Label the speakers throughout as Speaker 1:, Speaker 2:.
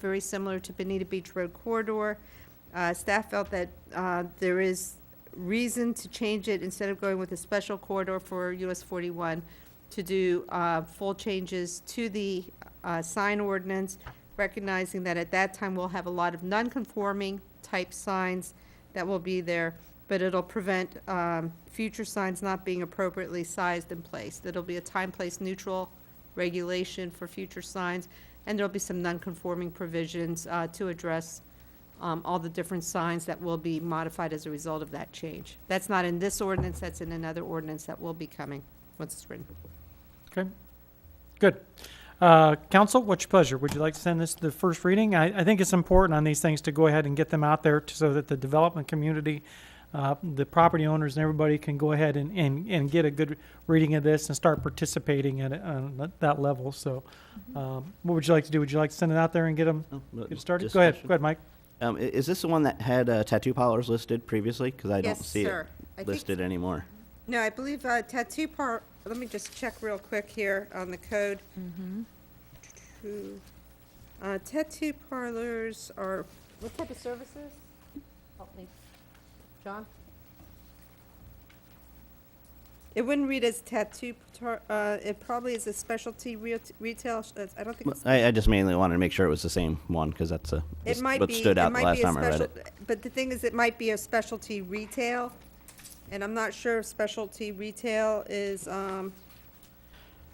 Speaker 1: very similar to Bonita Beach Road corridor. Uh, Staff felt that uh, there is reason to change it instead of going with a special corridor for US 41 to do uh, full changes to the uh, sign ordinance, recognizing that at that time we'll have a lot of non-conforming type signs that will be there, but it'll prevent um, future signs not being appropriately sized and placed. It'll be a time, place neutral regulation for future signs, and there'll be some non-conforming provisions uh, to address um, all the different signs that will be modified as a result of that change. That's not in this ordinance, that's in another ordinance that will be coming once it's written.
Speaker 2: Okay, good. Uh, Council, what's your pleasure? Would you like to send this to the first reading? I, I think it's important on these things to go ahead and get them out there t- so that the development community, uh, the property owners and everybody can go ahead and, and, and get a good reading of this and start participating at, it on that- that level, so. um, What would you like to do? Would you like to send it out there and get them,
Speaker 3: Oh, no,
Speaker 2: get it started? Go ahead,
Speaker 3: discussion.
Speaker 2: go ahead, Mike.
Speaker 3: Um, i- is this the one that had uh, tattoo parlors listed previously? Because I don't
Speaker 1: Yes,
Speaker 3: see
Speaker 1: sir. I
Speaker 3: it
Speaker 1: think-
Speaker 3: listed anymore.
Speaker 1: No, I believe uh, tattoo par, let me just check real quick here on the code. Tattoo- uh, Tattoo parlors are, what type of services? Help me, John? It wouldn't read as tattoo, tar- uh, it probably is a specialty re- retail, sh- that's- I don't think
Speaker 3: Well,
Speaker 1: it's.
Speaker 3: I, I just mainly wanted to make sure it was the same one because that's a
Speaker 1: It
Speaker 3: that's
Speaker 1: might
Speaker 3: what
Speaker 1: be,
Speaker 3: stood
Speaker 1: it
Speaker 3: out the
Speaker 1: might
Speaker 3: last
Speaker 1: be a
Speaker 3: time I read
Speaker 1: special,
Speaker 3: it.
Speaker 1: but the thing is, it might be a specialty retail, and I'm not sure if specialty retail is, um,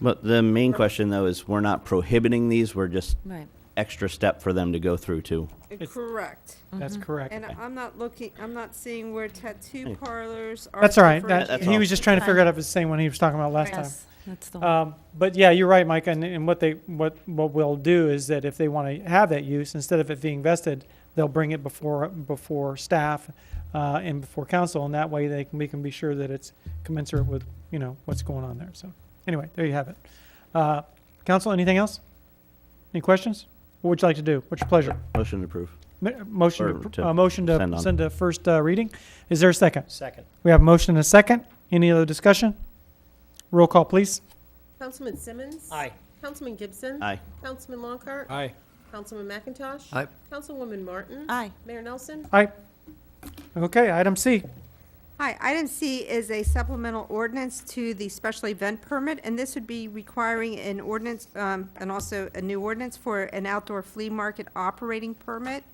Speaker 3: But the main question though is we're not prohibiting these. We're just
Speaker 4: Right.
Speaker 3: extra step for them to go through too.
Speaker 1: correct.
Speaker 2: That's correct.
Speaker 1: And I'm not looking, I'm not seeing where tattoo parlors are.
Speaker 2: That's all right. That,
Speaker 3: That's
Speaker 2: he
Speaker 3: all.
Speaker 2: was just trying to figure out if it's the same one he was talking about last time.
Speaker 4: Yes, that's the one.
Speaker 2: Um, but yeah, you're right, Mike, and, and what they, what, what we'll do is that if they want to have that use, instead of it being vested, they'll bring it before, before staff, uh, and before council, and that way they can, we can be sure that it's commensurate with, you know, what's going on there, so, anyway, there you have it. Uh, council, anything else? Any questions? What would you like to do? What's your pleasure?
Speaker 3: Motion to approve.
Speaker 2: Mi- Motion,
Speaker 3: Or
Speaker 2: to pr-
Speaker 3: to
Speaker 2: uh, motion
Speaker 3: send
Speaker 2: to
Speaker 3: on.
Speaker 2: send to first, uh, reading, is there a second?
Speaker 5: Second.
Speaker 2: We have a motion and a second, any other discussion? Roll call, please.
Speaker 6: Councilman Simmons?
Speaker 5: Aye.
Speaker 6: Councilman Gibson?
Speaker 3: Aye.
Speaker 6: Councilman Lockhart?
Speaker 5: Aye.
Speaker 6: Councilman McIntosh?
Speaker 5: Aye.
Speaker 6: Councilwoman Martin?
Speaker 4: Aye.
Speaker 6: Mayor Nelson?
Speaker 2: Aye. Okay, item C.
Speaker 1: Hi, item C is a supplemental ordinance to the special event permit, and this would be requiring an ordinance, um, and also a new ordinance for an outdoor flea market operating permit.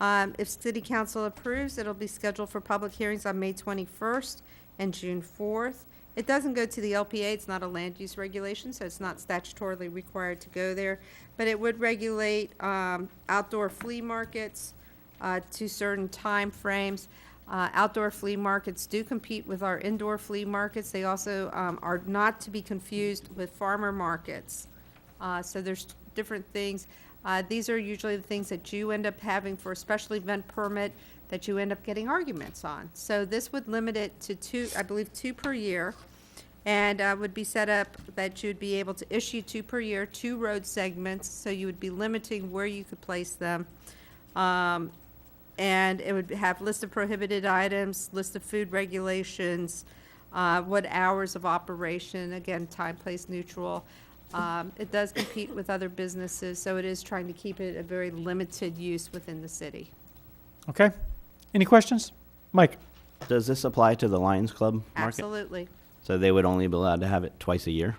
Speaker 1: Um, if city council approves, it'll be scheduled for public hearings on May twenty-first and June fourth. It doesn't go to the LPA, it's not a land use regulation, so it's not statutorily required to go there, but it would regulate, um, outdoor flea markets, uh, to certain time frames. Uh, Outdoor flea markets do compete with our indoor flea markets. They also um, are not to be confused with farmer markets. Uh, So there's different things. Uh, These are usually the things that you end up having for a special event permit that you end up getting arguments on. So this would limit it to two, I believe, two per year and uh, would be set up that you'd be able to issue two per year, two road segments, so you would be limiting where you could place them. Um, And it would have list of prohibited items, list of food regulations, uh, what hours of operation, again, time, place neutral. Um, It does compete with other businesses, so it is trying to keep it a very limited use within the city.
Speaker 2: Okay. Any questions? Mike?
Speaker 3: Does this apply to the Lions Club market?
Speaker 1: Absolutely.
Speaker 3: So they would only be allowed to have it twice a year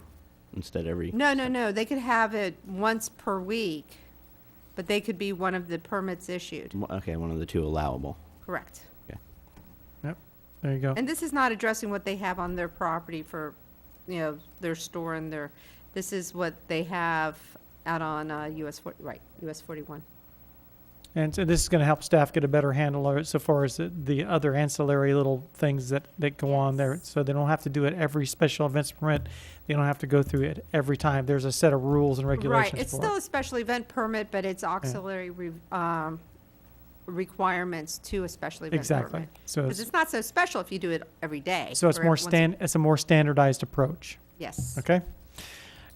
Speaker 3: instead every.
Speaker 1: No, no, no, they could have it once per week, but they could be one of the permits issued,
Speaker 3: Okay, one of the two allowable.
Speaker 1: correct.
Speaker 2: Yep. There you go.
Speaker 1: And this is not addressing what they have on their property for, you know, their store and their, this is what they have out on uh, US, four- right, US 41.
Speaker 2: And so this is going to help staff get a better handle of it so far as the, the other ancillary little things that, that go on there. So they don't have to do it every special events permit. They don't have to go through it every time. There's a set of rules and regulations
Speaker 1: Right, it's
Speaker 2: for
Speaker 1: still a special event permit, but it's auxiliary re- um, requirements to a special
Speaker 2: it.
Speaker 1: event permit.
Speaker 2: Exactly. So
Speaker 1: Because
Speaker 2: it's,
Speaker 1: it's not so special if you do it every day.
Speaker 2: so it's
Speaker 1: or
Speaker 2: more
Speaker 1: once a-
Speaker 2: stand, it's a more standardized approach.
Speaker 1: Yes.
Speaker 2: Okay.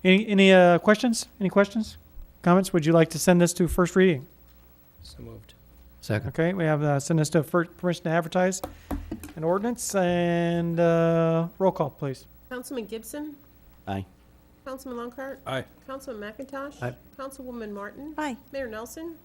Speaker 2: Any, any uh, questions? Any questions? Comments? Would you like to send this to first reading?
Speaker 5: So moved.
Speaker 2: Okay, we have, uh, send us to first, permission to advertise an ordinance and, uh, roll call, please.
Speaker 6: Councilman Gibson?
Speaker 3: Aye.
Speaker 6: Councilman Longcart?
Speaker 4: Aye.
Speaker 6: Councilman McIntosh?
Speaker 2: Aye.
Speaker 6: Councilwoman Martin?
Speaker 5: Aye.
Speaker 6: Mayor Nelson?